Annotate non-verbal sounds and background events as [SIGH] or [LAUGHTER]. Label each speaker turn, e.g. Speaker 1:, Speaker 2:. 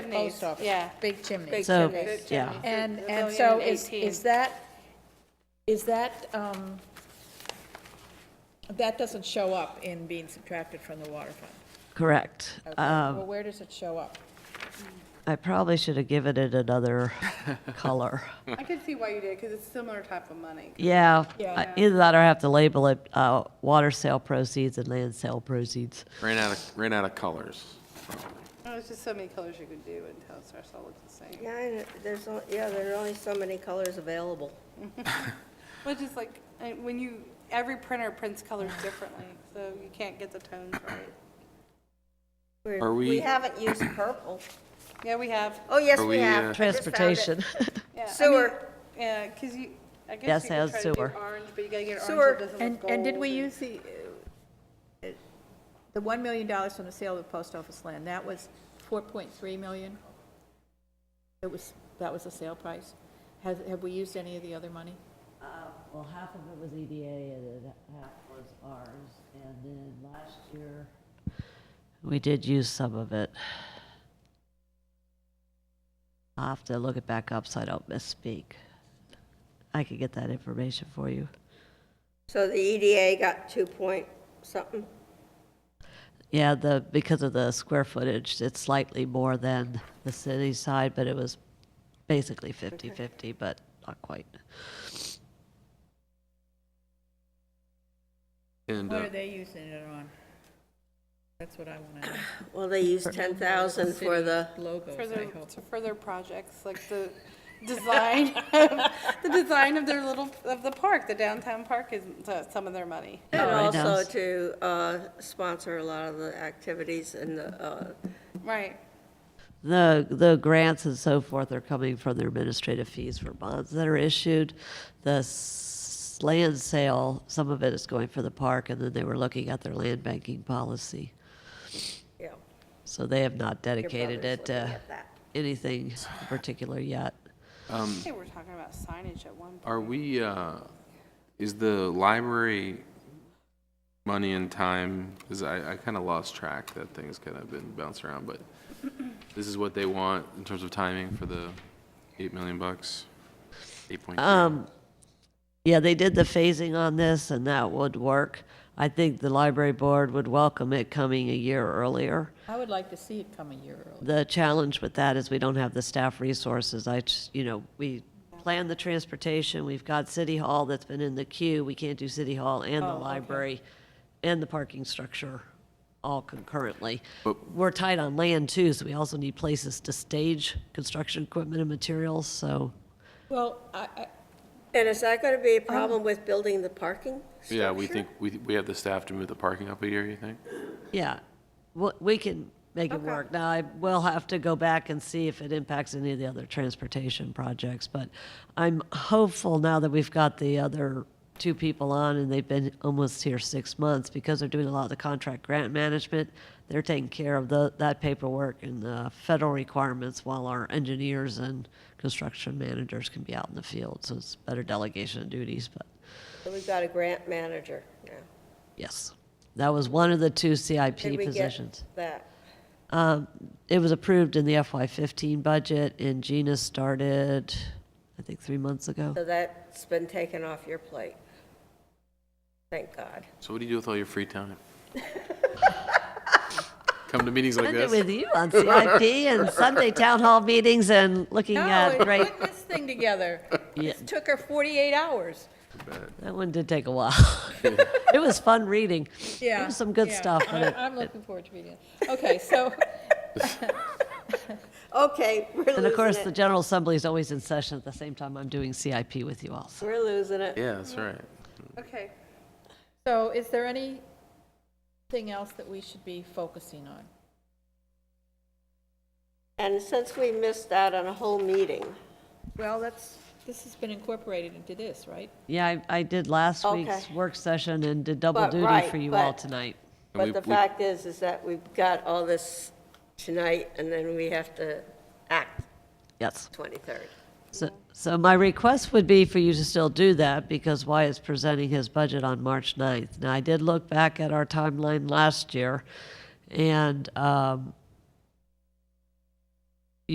Speaker 1: chimneys,
Speaker 2: post office.
Speaker 1: yeah.
Speaker 2: Big chimneys.
Speaker 1: Big
Speaker 3: So,
Speaker 1: chimneys.
Speaker 3: yeah.
Speaker 2: And,
Speaker 1: They're
Speaker 2: and
Speaker 1: going
Speaker 2: so
Speaker 1: in
Speaker 2: is,
Speaker 1: 18.
Speaker 2: is that, is that, um, that doesn't show up in being subtracted from the water fund?
Speaker 3: Correct.
Speaker 2: Okay.
Speaker 3: Um,
Speaker 2: Well, where does it show up?
Speaker 3: I probably should have given it another color.
Speaker 4: I can see why you did, because it's a similar type of money.
Speaker 3: Yeah,
Speaker 2: Yeah.
Speaker 3: uh, either that or I have to label it uh, water sale proceeds and land sale proceeds.
Speaker 5: Ran out of, ran out of colors.
Speaker 4: There's Oh, just so many colors you could do until it starts all looking the same.
Speaker 6: Yeah, and there's, on- yeah, there are only so many colors available.
Speaker 4: Well, just like, I- when you, every printer prints colors differently, so you can't get the tones right.
Speaker 6: We're-
Speaker 5: Are we-
Speaker 6: We haven't used purple.
Speaker 5: [COUGHS]
Speaker 4: Yeah, we have,
Speaker 6: Oh, yes,
Speaker 5: Are
Speaker 6: we
Speaker 5: we,
Speaker 6: have.
Speaker 5: uh,
Speaker 6: I just found it.
Speaker 3: [LAUGHS] Transportation.
Speaker 4: yeah. I mean,
Speaker 6: Sewer.
Speaker 4: Yeah, because you, I
Speaker 3: Yes,
Speaker 4: guess you
Speaker 3: it has
Speaker 4: could try to do
Speaker 3: sewer.
Speaker 4: orange, but you gotta get
Speaker 6: Sewer.
Speaker 4: orange that doesn't look
Speaker 2: And,
Speaker 4: gold.
Speaker 2: and did we
Speaker 4: and-
Speaker 2: use the, uh, the $1 million from the sale of the post office land? That was 4.3 million? It was, that was the sale price? Has, have we used any of the other money?
Speaker 3: Uh, Well, half of it was EDA and then half was ours. And then last year. We did use some of it. I'll have to look it back up so I don't misspeak. I could get that information for you.
Speaker 6: So the EDA got two point something.
Speaker 3: Yeah, the, because of the square footage, it's slightly more than the city side, but it was basically 50/50, but not quite.
Speaker 5: And
Speaker 2: What
Speaker 5: uh,
Speaker 2: are they using it on? That's what I want to know.
Speaker 6: Well, they used 10,000 for the,
Speaker 2: Logos,
Speaker 4: For
Speaker 2: I
Speaker 4: their,
Speaker 2: hope.
Speaker 4: for their projects, like [LAUGHS] the design, of- the design of their little, of the park, the downtown park is uh, some of their money.
Speaker 6: and
Speaker 3: Alright,
Speaker 6: also
Speaker 3: Alice.
Speaker 6: to uh, sponsor a lot of the activities and the, uh,
Speaker 4: Right.
Speaker 3: The, the grants and so forth are coming from their administrative fees for bonds that are issued. The s- land sale, some of it is going for the park, and then they were looking at their land banking policy.
Speaker 6: yeah.
Speaker 3: So they have not
Speaker 6: your
Speaker 3: dedicated it
Speaker 6: brother's looking
Speaker 3: to
Speaker 6: at uh, that.
Speaker 3: anything in particular yet.
Speaker 4: I think we were talking about signage at one point.
Speaker 5: are we, uh, is the library money and time, because I, I kind of lost track, that thing's kind of been bounced around,
Speaker 3: [LAUGHS]
Speaker 5: but this is what they want in terms of timing for the 8 million bucks? 8.3?
Speaker 3: Um, yeah, they did the phasing on this, and that would work. I think the library board would welcome it coming a year earlier.
Speaker 2: I would like to see it come a year early.
Speaker 3: The challenge with that is we don't have the staff resources. I, just- you know, we plan the transportation, we've got City Hall that's been in the queue, we can't do City Hall and the library and the parking structure all concurrently. We're tight on land too, so we also need places to stage construction equipment and materials, so.
Speaker 2: Well, I, I,
Speaker 6: And is that going to be a problem with building the parking
Speaker 5: Yeah, we
Speaker 6: structure?
Speaker 5: think, we, we have the staff to move the parking up a year, you think?
Speaker 3: Yeah, we- we can make it work. Now, I will have to go back and see if it impacts any of the other transportation projects, but I'm hopeful now that we've got the other two people on and they've been almost here six months because they're doing a lot of the contract grant management. They're taking care of the, that paperwork and the federal requirements while our engineers and construction managers can be out in the field. So it's better delegation of duties, but
Speaker 6: So We've got a grant manager now.
Speaker 3: yes. That was one of the two CIP
Speaker 6: Did we get
Speaker 3: positions.
Speaker 6: that?
Speaker 3: it was approved in the FY15 budget, and Gina started, I think, three months ago.
Speaker 6: So that's been taken off your plate. Thank God.
Speaker 5: So what do you do with all your
Speaker 3: [LAUGHS]
Speaker 5: free time? Come to meetings like
Speaker 3: Spend it
Speaker 5: this?
Speaker 3: with you on CIP and Sunday town hall meetings and looking
Speaker 2: no,
Speaker 3: at,
Speaker 2: we're
Speaker 3: right,
Speaker 2: putting this thing together.
Speaker 3: Yeah.
Speaker 2: It took her 48 hours.
Speaker 3: that one did take a while. [LAUGHS] It was fun reading. There
Speaker 2: Yeah.
Speaker 3: was some good
Speaker 2: yeah.
Speaker 3: stuff
Speaker 2: [LAUGHS]
Speaker 3: in
Speaker 2: I-
Speaker 3: it.
Speaker 2: I'm looking forward to reading it. Okay, so, [LAUGHS]
Speaker 6: Okay, we're
Speaker 3: And of course,
Speaker 6: losing
Speaker 3: the
Speaker 6: it.
Speaker 3: General Assembly is always in session at the same time I'm doing CIP with you all, so.
Speaker 6: We're losing it.
Speaker 5: Yeah, that's right.
Speaker 4: Okay.
Speaker 2: so is there anything else that we should be focusing on?
Speaker 6: And since we missed out on a whole meeting,
Speaker 2: Well, that's, this has been incorporated into this, right?
Speaker 3: Yeah, I, I did last week's
Speaker 6: Okay.
Speaker 3: work session and did double
Speaker 6: But,
Speaker 3: duty
Speaker 6: right,
Speaker 3: for you all
Speaker 6: but-
Speaker 3: tonight.
Speaker 5: we-
Speaker 6: but the
Speaker 5: we-
Speaker 6: fact is, is that we've got all this tonight, and then we have to act
Speaker 3: Yes.
Speaker 6: 23rd.
Speaker 3: So, so my request would be for you to still do that because Wyatt's presenting his budget on March 9th. Now, I did look back at our timeline last year, and um,